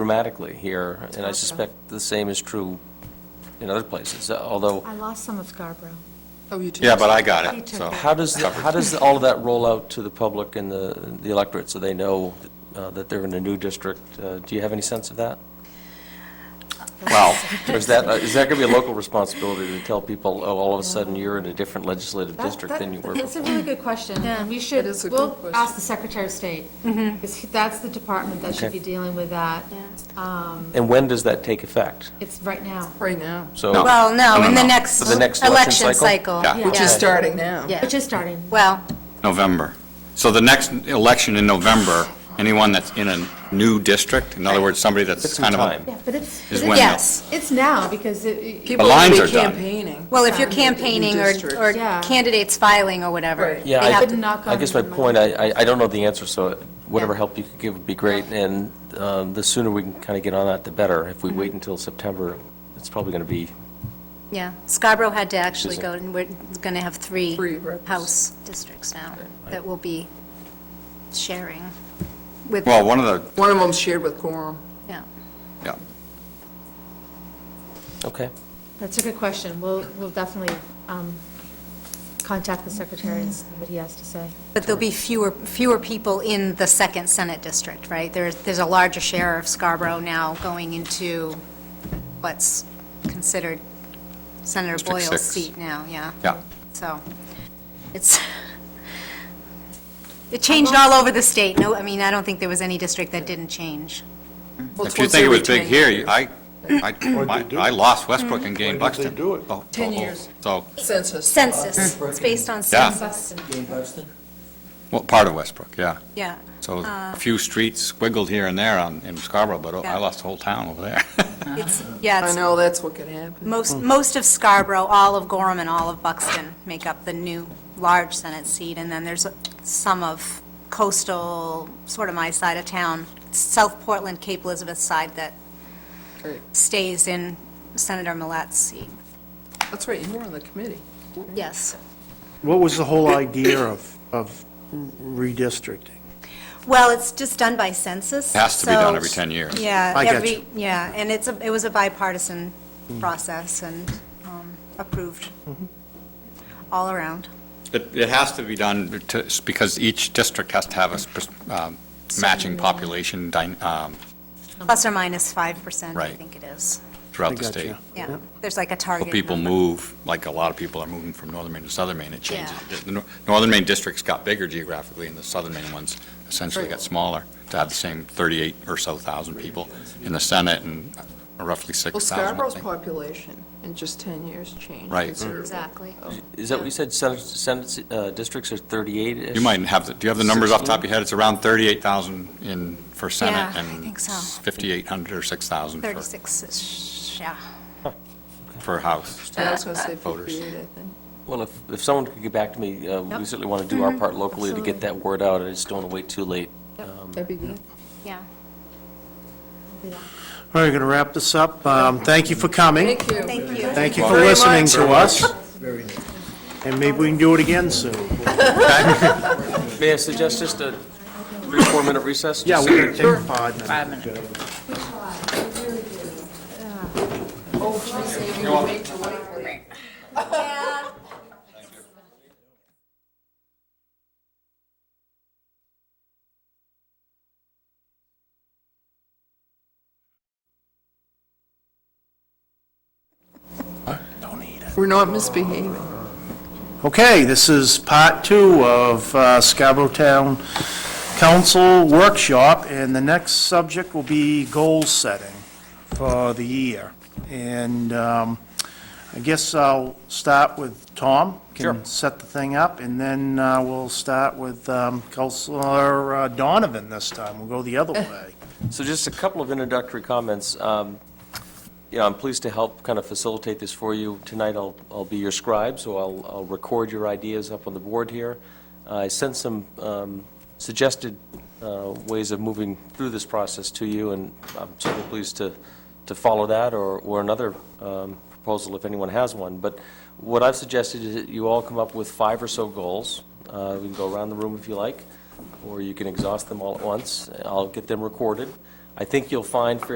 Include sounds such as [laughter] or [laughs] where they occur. dramatically here, and I suspect the same is true in other places, although, I lost some of Scarborough. Oh, you took. Yeah, but I got He it, took so. that. how does, how does all of that roll out to the public and the the electorate, so they know uh, that they're in a new district? Uh, Do you have any sense of that? Well, Or is that, uh, is that going to be a local responsibility to tell people, oh, all of a sudden, you're in a different legislative That- district than you were It's a before? really good question, and we should, It is a good we'll question. ask the Secretary of State, because that's the department that should Okay. be dealing with that. Um, And when does that take effect? It's right now, Right now, So, Well, no, in the next For the next election election cycle? cycle. Yeah. which Yeah. is starting now. Yeah. which is starting. Well, November. So the next election in November, anyone that's in a new district, in other words, somebody Took that's some kind of, a- time. Yeah, but it's, is when they'll- yes. it's now, because it, People lines will are be done. campaigning. Well, if you're Your campaigning or district. or Yeah. candidates filing or whatever. Right. Yeah, they I- have to- Couldn't knock I guess my on point, I, I- I don't know the answer, so whatever Yeah. help you could give would be great, and um, the sooner we can kind of get on that, the better. If we wait Mm-hmm. until September, it's probably going to be, Yeah, Scarborough had to actually Is it- go, and we're going to have three Three reps. House districts now that will be sharing with, well, one of the, One of them's shared with Quorum. yeah. yeah. okay. that's a good question, we'll, we'll definitely um, contact the Secretary and see what he has to say. But there'll be fewer, fewer people in the second Senate district, right? There's, there's a larger share of Scarborough now going into what's considered Senator District Boyle's six. seat now, yeah. Yeah. So, it's, [laughs] it changed all over the state. No, I mean, I don't think there was any district that didn't change. Well, it's If you once think it every was big 10 here, years. you- I, I, my- do I lost Westbrook and gained When did they Buxton. do it? Oh, oh, 10 oh. years. So, Census. Census, it's based on Yeah. census. well, part of Westbrook, yeah. Yeah. So a few streets squiggled here and there on, in Scarborough, but oh, I Yeah. lost the whole town over there. It's, yeah, Uh-huh. I it's know, Hmm. that's what could happen. Most, most of Scarborough, all of Gorham and all of Buxton make up the new large Senate seat, and then there's some of coastal, sort of my side of town, South Portland, Cape Elizabeth side that Right. stays in Senator Millet's seat. That's right, you were on the committee. Yes. What was the whole idea of, of redistricting? Well, it's just done by census. It has to be done so- every 10 years. Yeah. I get every- you. Yeah, and it's, a it was a bipartisan process and um, approved Mm-hmm. all around. It, it has to be done to, because each district has to have a sp- um, matching population dyn- um, Plus or minus 5%, I Right. think it is. I throughout the gotcha. state. Yeah, Yep. there's like a Well, target. people number. move, like a lot of people are moving from northern Maine to southern Maine, it changes. Yeah. The nor- northern Maine districts got bigger geographically, and the southern Maine ones essentially got smaller, to have the same 38 or so thousand people in the Senate and uh, roughly Well, 6,000, I Scarborough's think. population in just 10 years changed. Right. considerably. Exactly. Is that what you said, Senate, Senate uh, districts are 38-ish? You might have, the- do you have the numbers off the top of your head? It's around 38,000 in, for Senate, Yeah, I think and so. 5,800 or 6,000 for, 36, yeah. for House. Yeah, I was going to say Voters. 58, I think. Well, if, if someone could get back to me, uh, we Yep. Mm-hmm. certainly want to do our part locally to absolutely. get that word out, I just don't want to wait too late. Um, That'd be good. Yeah. All right, we're going to wrap this up. Um, Thank you for coming. Thank you. Thank you. Thank you for Very much. listening to us. And maybe we can do it again soon. May I suggest just a three, or four-minute recess? Yeah, Just- we're going to take a pod now. We're not misbehaving. Okay, this is part two of uh, Scarborough Town Council Workshop, and the next subject will be goal setting for the year. And um, I guess I'll start with Tom. Sure. Can set the thing up, and then uh, we'll start with um, Counselor uh, Donovan this time. We'll go the other way. So just a couple of introductory comments. Um, You know, I'm pleased to help kind of facilitate this for you. Tonight, I'll, I'll be your scribe, so I'll, I'll record your ideas up on the board here. Uh, I sent some um, suggested uh, ways of moving through this process to you, and I'm certainly pleased to, to follow that or, or another um, proposal if anyone has one. But what I've suggested is that you all come up with five or so goals. Uh, We can go around the room if you like or you can exhaust them all at once. I'll get them recorded. I think you'll find fairly